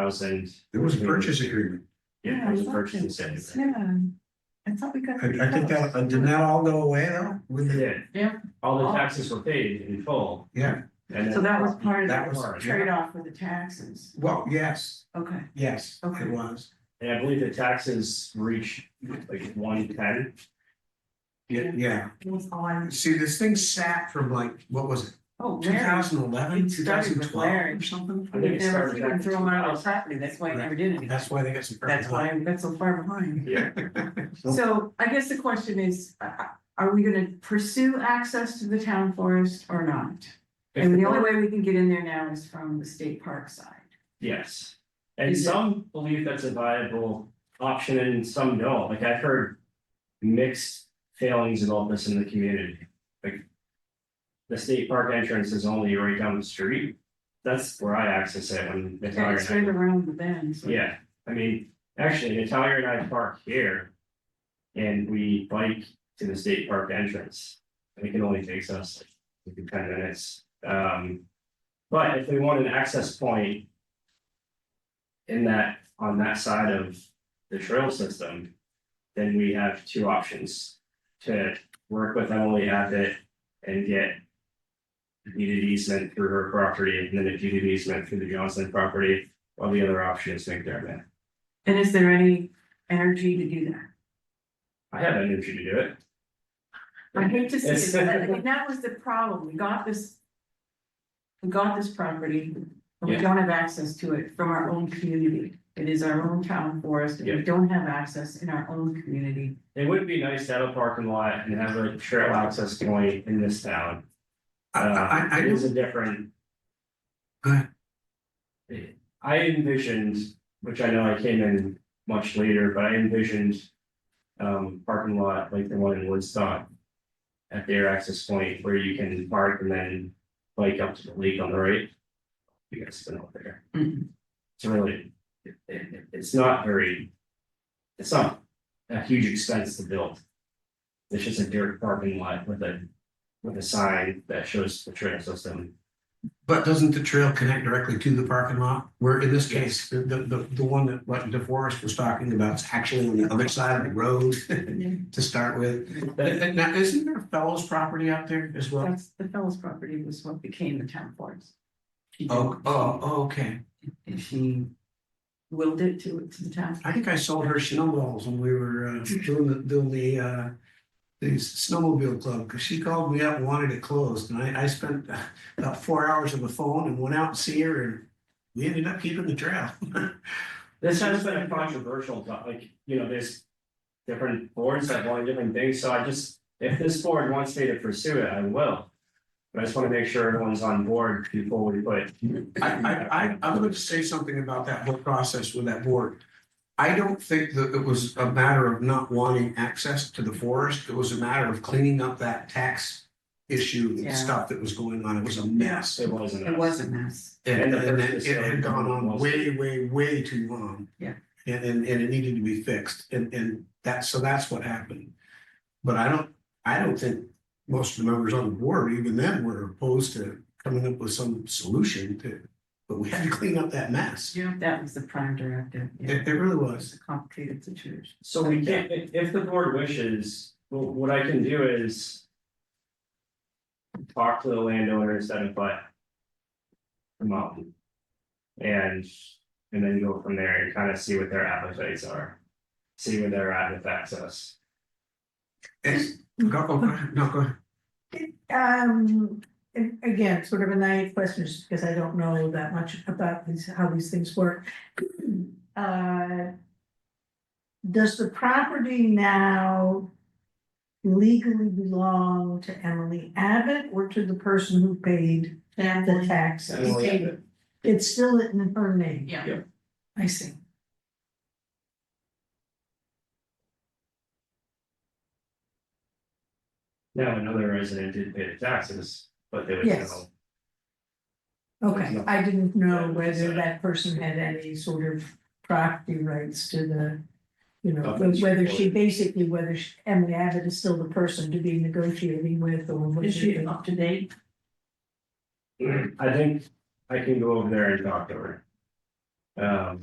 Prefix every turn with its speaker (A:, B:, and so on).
A: thousand.
B: There was a purchase agreement.
A: Yeah, it was
C: I thought
A: purchase
C: there
A: incentive.
C: was, Yeah. I thought we got.
B: I, I think that, uh, did that all go away now? With the,
A: Yeah.
C: Yeah.
A: All the taxes were paid in full.
B: yeah,
A: and
C: So that was part of
B: That
C: the
B: was-
C: trade off with the taxes.
B: well, yes,
C: Okay.
B: yes,
C: Okay.
B: it was.
A: And I believe the taxes reached like one ten.
B: Yeah, yeah.
C: It was on.
B: See, this thing sat from like, what was it,
C: Oh,
B: two
C: Larry.
B: thousand eleven,
C: It
B: two
C: started
B: thousand
C: with
B: twelve
C: Larry.
B: or something?
A: I think it
C: They were
A: started
C: throwing
A: back-
C: them out of the property, that's why I never did anything.
B: That's why they got some.
C: That's why I'm, that's so far behind.
A: Yeah.
C: So I guess the question is, uh, uh, are we gonna pursue access to the town forest or not? And the only way we can get in there now is from the state park side.
A: Yes, and
C: Is it-
A: some believe that's a viable option and some don't, like I've heard mixed failings about this in the community, like. The state park entrance is only right down the street, that's where I access it when
C: Yeah,
A: Natalia
C: It's right
A: and
C: around the bend,
A: I,
C: so.
A: yeah, I mean, actually, Natalia and I park here. And we bike to the state park entrance, and it can only takes us like ten minutes, um. But if we want an access point in that, on that side of the trail system. Then we have two options to work with Emily Abbott and get. a Deed of easement through her property and then a deed of easement through the Johnson property, while the other option is McDermott.
C: And is there any energy to do that?
A: I have energy to do it.
C: I hate to see
A: It's-
C: it, but I mean, that was the problem, we got this. We got this property, but we
A: Yeah.
C: don't have access to it from our own community. It is our own town forest, and
A: Yeah.
C: we don't have access in our own community.
A: It would be nice to have a parking lot and have a trail access point in this town.
B: I, I,
A: Uh,
B: I,
A: It is
B: I-
A: a different.
B: Go ahead.
A: I envisioned, which I know I came in much later, but I envisioned. Um, parking lot like the one in Woodstock. At their access point where you can park and then bike up to the lake on the right. You guys been out there,
B: Mm-hmm.
C: Mhm.
A: it's really, it, it, it's not very. It's not a huge expense to build. It's just a dirt parking lot with a, with a sign that shows the trail system.
B: but doesn't the trail connect directly to the parking lot? Where in this case, the, the, the the one that what DeForest was talking about is actually on the other side of the road to start with. And- and now, isn't there Fellows property out there as well?
C: That's, the fellow's property was what became the town forest. She
B: Oh, oh, oh, okay.
C: And she willed it to, to the town.
B: I think I sold her snowballs when we were uh, doing the, doing the, uh, the snowmobile club, because she called me up, and wanted it closed, and I, I spent uh, about four hours on the phone and went out and see her, and we ended up keeping the trail.
A: This has been a controversial, but like, you know, there's. Different boards that want different things, so I just, if this board wants me to pursue it, I will. But I just wanna make sure everyone's on board before we put.
B: I, I, I, I'm going to say something about that whole process with that board. I don't think that it was a matter of not wanting access to the forest, it was a matter of cleaning up that tax issue
C: Yeah.
B: and stuff that was going on, it was a mess.
A: It wasn't.
C: It was a mess.
B: And
A: And the
B: and
A: purchase
B: it it had
A: of-
B: gone on way, way, way too long.
C: Yeah.
B: And and and it needed to be fixed and and that, so that's what happened. But I don't, I don't think most of the members on the board, even then, were opposed to coming up with some solution to. But we had to clean up that mess.
C: Yeah. That was the prime directive. yeah.
B: It it really
C: It's
B: was.
C: a complicated situation.
A: So we can't, if if the board wishes, wh- what I can do is. Talk to the landowner instead of but. Come on. And, and then go from there and kind of see what their appetites are. See where they're at with access.
B: It's- go- go- go ahead. No, go ahead.
D: Um, and again, sort of a naive question, just because I don't know that much about these, how these things work. Uh, Does the property now legally belong to Emily Abbott or to the person who paid the taxes?
A: Emily Abbott.
D: It's still in her name?
C: Yeah.
A: Yeah.
D: I see.
A: Now, another resident did pay the taxes, but they would
D: Yes.
A: know.
D: Okay, I didn't
A: Yeah,
D: know
A: it's, uh,
D: whether that person had any sort of property rights to the. You know,
A: Of the
D: whether she
A: support.
D: basically, whether she- Emily Abbott is still the person to be negotiating with or what
C: Is she
D: she.
C: up to date?
A: I think I can go over there and talk to her. Um,